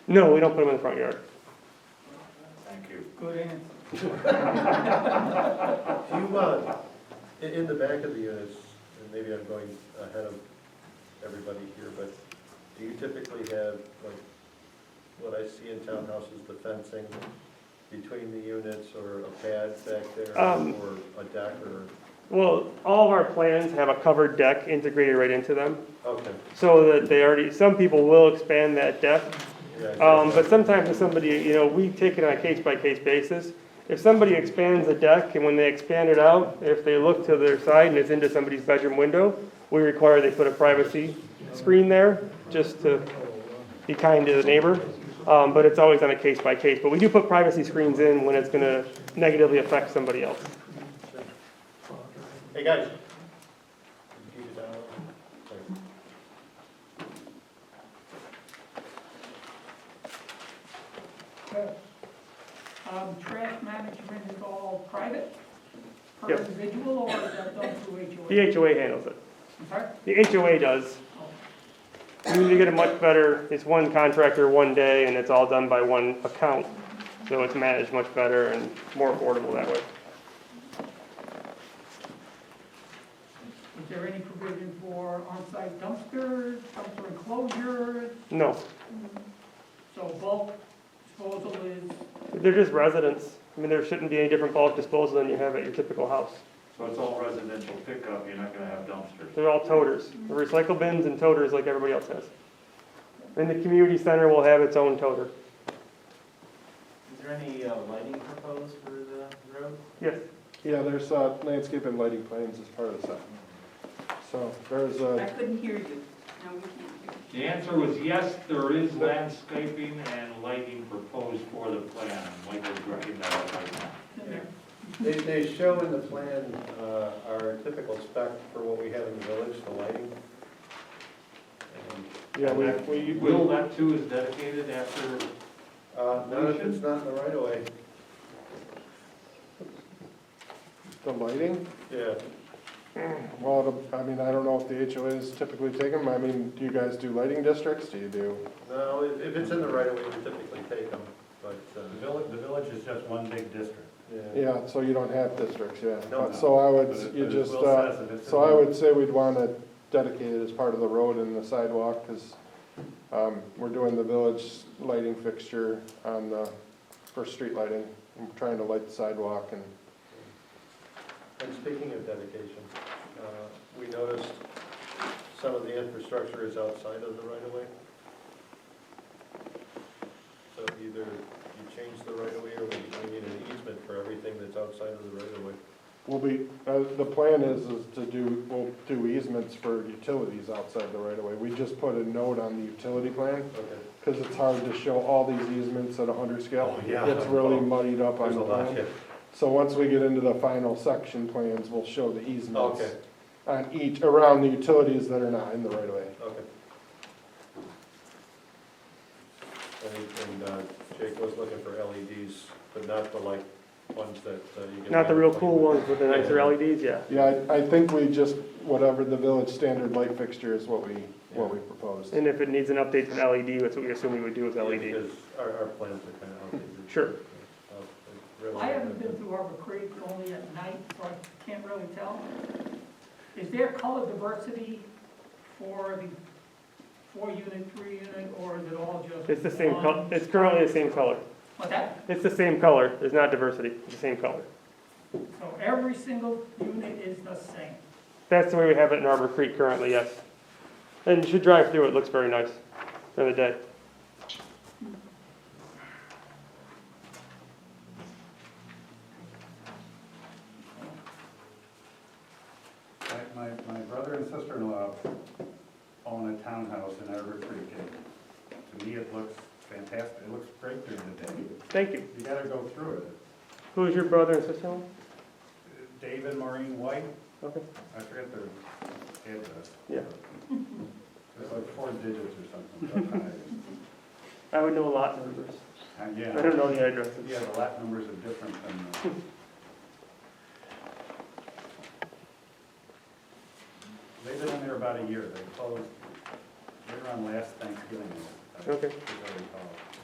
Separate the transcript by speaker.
Speaker 1: No, we don't put them in the front yard.
Speaker 2: Thank you.
Speaker 3: Good answer.
Speaker 4: Do you, uh, in, in the back of the units, and maybe I'm going ahead of everybody here, but do you typically have, like, what I see in townhouses, the fencing between the units, or a pad back there,
Speaker 1: Um,
Speaker 4: or a deck, or,
Speaker 1: Well, all of our plans have a covered deck integrated right into them,
Speaker 4: okay.
Speaker 1: so that they already, some people will expand that deck.
Speaker 4: yeah, I see.
Speaker 1: Um, but sometimes if somebody, you know, we take it on a case-by-case basis. If somebody expands the deck, and when they expand it out, if they look to their side and it's into somebody's bedroom window, we require they put a privacy screen there, just to be kind to the neighbor. Um, but it's always on a case-by-case, but we do put privacy screens in when it's gonna negatively affect somebody else.
Speaker 4: Hey, guys. Keep it down. Thanks.
Speaker 3: Um, trash management is all private? Per
Speaker 1: Yep.
Speaker 3: individual or is that done through HOA?
Speaker 1: The HOA handles it.
Speaker 3: I'm sorry?
Speaker 1: The HOA does. You need to get it much better, it's one contractor, one day, and it's all done by one account. So it's managed much better and more affordable that way.
Speaker 3: Is there any provision for on-site dumpsters, dumpster enclosures?
Speaker 1: No,
Speaker 3: So bulk disposal is,
Speaker 1: they're just residents. I mean, there shouldn't be any different bulk disposal than you have at your typical house.
Speaker 2: So it's all residential pickup, you're not gonna have dumpsters.
Speaker 1: They're all toters, They're recycle bins and toters like everybody else has. And the community center will have its own toter.
Speaker 5: Is there any uh, lighting proposed for the road?
Speaker 1: Yes,
Speaker 6: Yeah, there's uh, landscape and lighting plans as part of the set. So there's uh,
Speaker 7: I
Speaker 6: a,
Speaker 7: couldn't hear you. No, we can't
Speaker 2: The answer was yes, there is landscaping and lighting proposed for the plan, Michael's writing that out right now.
Speaker 3: in there.
Speaker 4: They, they show in the plan, uh, our typical spec for what we have in the village, the lighting. And,
Speaker 6: yeah, we, we,
Speaker 2: Will that too is dedicated after,
Speaker 4: Uh, not if it's not in the right of way.
Speaker 6: the lighting,
Speaker 4: Yeah,
Speaker 6: well, it'll- I mean, I don't know if the HOAs typically take them. I mean, do you guys do lighting districts? Do you do?
Speaker 4: no, if, if it's in the right of way, we typically take them, but,
Speaker 8: The
Speaker 4: uh,
Speaker 8: village, the village is just one big district.
Speaker 4: yeah.
Speaker 6: Yeah, so you don't have districts, yeah. Uh,
Speaker 4: No, no.
Speaker 6: So I
Speaker 8: But
Speaker 6: would,
Speaker 8: it-
Speaker 6: you
Speaker 8: but it
Speaker 6: just,
Speaker 8: will
Speaker 6: uh,
Speaker 8: says that it's in
Speaker 6: so I
Speaker 8: the-
Speaker 6: would say we'd want to dedicate it as part of the road and the sidewalk because we're doing the village lighting fixture on the, for street lighting. We're trying to light the sidewalk and
Speaker 4: And speaking of dedication, uh, we noticed some of the infrastructure is outside of the right of way. So either you change the right of way, or we, we need an easement for everything that's outside of the right of way.
Speaker 6: We'll be, uh, the plan is, is to do, we'll do easements for utilities outside the right of way. We just put a note on the utility plan,
Speaker 4: Okay.
Speaker 6: because it's hard to show all these easements at a hundred scale.
Speaker 4: Oh, yeah.
Speaker 6: It's really muddied up on
Speaker 4: There's a
Speaker 6: the
Speaker 4: lot,
Speaker 6: plan.
Speaker 4: yeah.
Speaker 6: So once we get into the final section plans, we'll show the easements
Speaker 4: Okay.
Speaker 6: on each, around the utilities that are not in the right of way.
Speaker 4: Okay. And, and uh, Jake was looking for LEDs, but not the like ones that uh, you can.
Speaker 1: not the real cool ones with the nicer LEDs, yeah.
Speaker 6: Yeah, I, I think we just, whatever the village standard light fixture is what we, what we proposed.
Speaker 1: And if it needs an update to an LED, that's what we assume we would do with E
Speaker 4: Yeah,
Speaker 1: LED.
Speaker 4: Because our, our plans are kind of outdated.
Speaker 1: Sure.
Speaker 4: Uh, it really-
Speaker 3: I haven't been through Arbor Creek, only at night, so I can't really tell. Is there color diversity for the four unit, three unit, or is it all just?
Speaker 1: It's the same, col-
Speaker 3: one?
Speaker 1: it's currently the same color.
Speaker 3: What's that?
Speaker 1: It's the same color, there's not diversity, it's the same color.
Speaker 3: So every single unit is the same.
Speaker 1: That's the way we have it in Arbor Creek currently, yes. And you should drive through, it looks very nice during the day.
Speaker 8: My- My, my brother and sister-in-law own a townhouse in Arbor Creek, and to me, it looks fantastic, it looks great during the day.
Speaker 1: Thank you.
Speaker 8: You gotta go through it.
Speaker 1: Who is your brother and sister?
Speaker 8: Dave and Maureen White,
Speaker 1: Okay.
Speaker 8: I forget their address.
Speaker 1: Yeah.
Speaker 8: It's like four digits or something.
Speaker 1: I would know a lot of numbers.
Speaker 8: Uh,
Speaker 1: I
Speaker 8: Yeah.
Speaker 1: don't know the addresses.
Speaker 8: Yeah, the lap numbers are different than the... They've been in there about a year, they closed, they were on last Thanksgiving.
Speaker 1: Okay.
Speaker 8: if I recall.